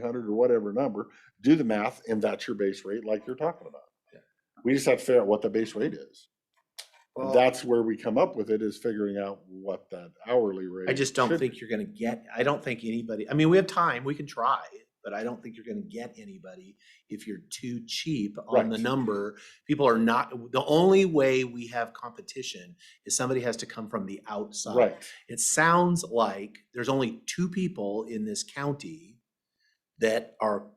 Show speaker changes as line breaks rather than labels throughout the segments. hundred or whatever number, do the math, and that's your base rate like you're talking about. We just have to figure out what the base rate is. And
Well-
that's where we come up with it, is figuring out what that hourly rate.
I just don't
should
think you're gonna get, I don't think anybody, I mean, we have time, we can try, but I don't think you're gonna get anybody if you're too cheap on the
Right.
number. People are not, the only way we have competition is somebody has to come from the
be.
outside.
Right,
It sounds like there's only two people in this county that are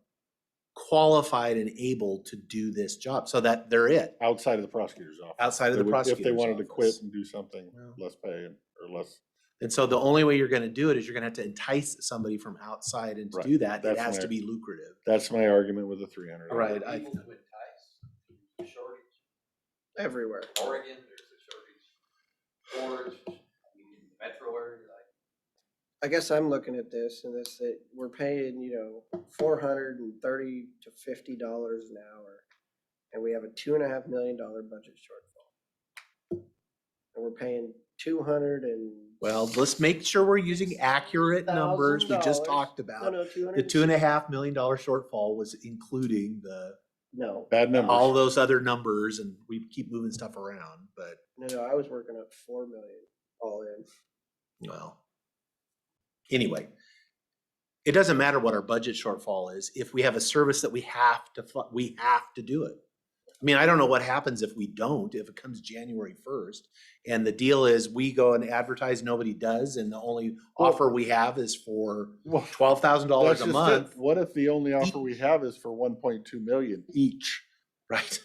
qualified and able to do this job, so that they're it,
outside of the prosecutor's office.
outside of
They
the
would-
prosecutor's
If they wanted to quit
office.
and do something,
Well.
less pay and- or less,
And so the only way you're gonna do it is you're gonna have to entice somebody from outside and to
Right,
do that, it
that's
has
my-
to be lucrative.
that's my argument with the three hundred.
Right, I-
People to entice, shortage,
everywhere.
Oregon, there's a shortage. Orange, I mean, in the metro area, like,
I guess I'm looking at this and this, that we're paying, you know, four hundred and thirty to fifty dollars an hour. And we have a two and a half million dollar budget shortfall. And we're paying two hundred and.
Well, let's make sure we're using accurate numbers we just
$1,000.
talked
No,
about.
no, two hundred.
The two and a half million dollar shortfall was including the,
No,
Bad
all
numbers.
those other numbers and we keep moving stuff around, but
no, no, I was working up four million all in.
well. Anyway, it doesn't matter what our budget shortfall is, if we have a service that we have to, fu- we have to do it. I mean, I don't know what happens if we don't, if it comes January first, and the deal is we go and advertise, nobody does, and the only
Well-
offer we have is for
Well,
twelve thousand dollars
that's
a
just it.
month, E
What if the only offer we have is for one point two million each?
right?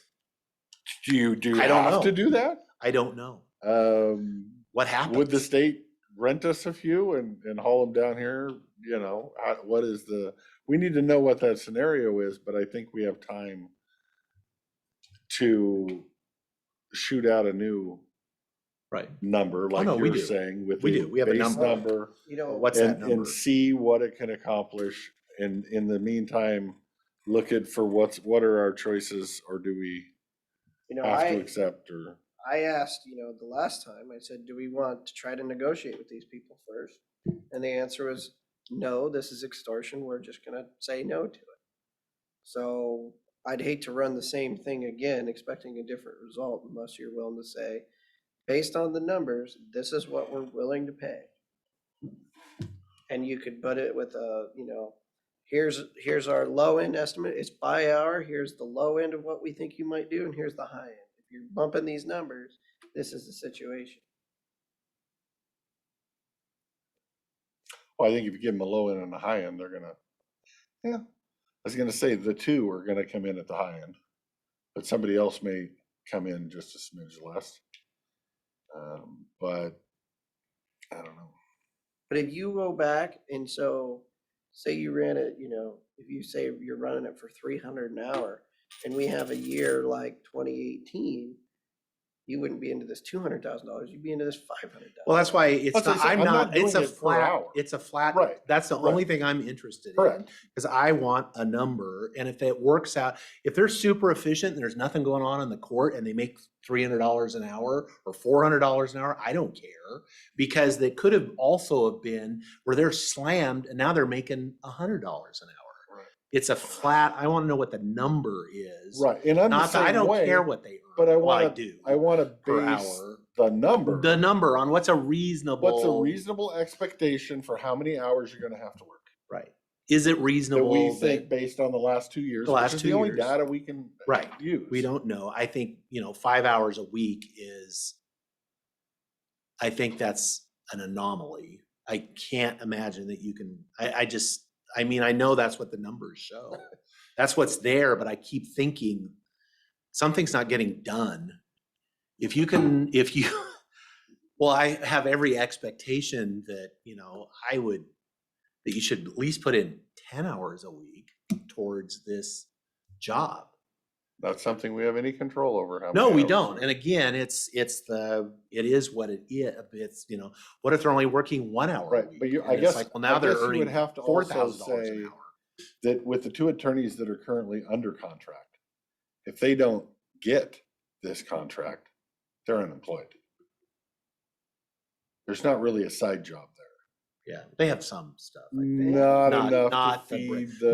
Do you, do you
I don't
have to
know.
do that?
I don't know
Um,
what happens.
Would the state rent us a few and, and haul them down here? You know, I- what is the, we need to know what that scenario is, but I think we have time to shoot out a new
right?
number, like
Oh, no, we
you're
do.
saying, with
We
the
do. We have a
base
number.
number
You know.
What's that
and,
number?
and see what it can accomplish. And in the meantime, look at for what's, what are our choices or do we
You know,
have to
I,
accept or?
I asked, you know, the last time, I said, do we want to try to negotiate with these people first? And the answer was, no, this is extortion, we're just gonna say no to it. So I'd hate to run the same thing again, expecting a different result unless you're willing to say, based on the numbers, this is what we're willing to pay. And you could put it with a, you know, here's, here's our low end estimate, it's by hour, here's the low end of what we think you might do, and here's the high end. If you're bumping these numbers, this is the situation.
Well, I think if you give them a low end and a high end, they're gonna, yeah, I was gonna say the two are gonna come in at the high end. But somebody else may come in just a smidge less. Um, but I don't know.
But if you go back and so, say you ran it, you know, if you say you're running it for three hundred an hour, and we have a year like twenty eighteen, you wouldn't be into this two hundred thousand dollars, you'd be into this five hundred thousand.
Well, that's why it's
That's what
not,
I said,
I'm
I'm not
not, it's
doing
a
it per
flat,
hour.
it's a flat,
Right,
that's the only thing I'm interested in.
Correct.
Cause I want a number and if it works out, if they're super efficient and there's nothing going on in the court and they make three hundred dollars an hour or four hundred dollars an hour, I don't care. Because they could have also have been where they're slammed and now they're making a hundred dollars an hour.
Right.
It's a flat, I wanna know what the number is.
Right, and I'm the
Not, that I
same
don't
way.
care what they earn.
but I
Well,
wanna-
do
I wanna
Per
base
hour.
the number.
The number on what's a reasonable.
What's a reasonable expectation for how many hours you're gonna have to work?
Right. Is it
That
reasonable?
we
that-
think based on the last two years,
The
which
last
is
two
the only
years.
data we can
Right.
use.
We don't know. I think, you know, five hours a week is, I think that's an anomaly. I can't imagine that you can, I, I just, I mean, I know that's what the numbers show. That's what's there, but I keep thinking something's not getting done. If you can, if you, well, I have every expectation that, you know, I would, that you should at least put in ten hours a week towards this job.
That's something we have any control over. how
No,
many
we
hours.
don't. And again, it's, it's the, it is what it is. It's, you know, what if they're only working one hour? a
Right, but
week?
you- I
And it's
guess-
like, Well,
I
now they're
guess you would
earning
have to
four
also
thousand dollars
say-
an hour.
that with the two attorneys that are currently under contract, if they don't get this contract, they're unemployed. There's not really a side job there.
Yeah, they have some stuff. I think.
Not
Not-
enough to
not the br-
feed the.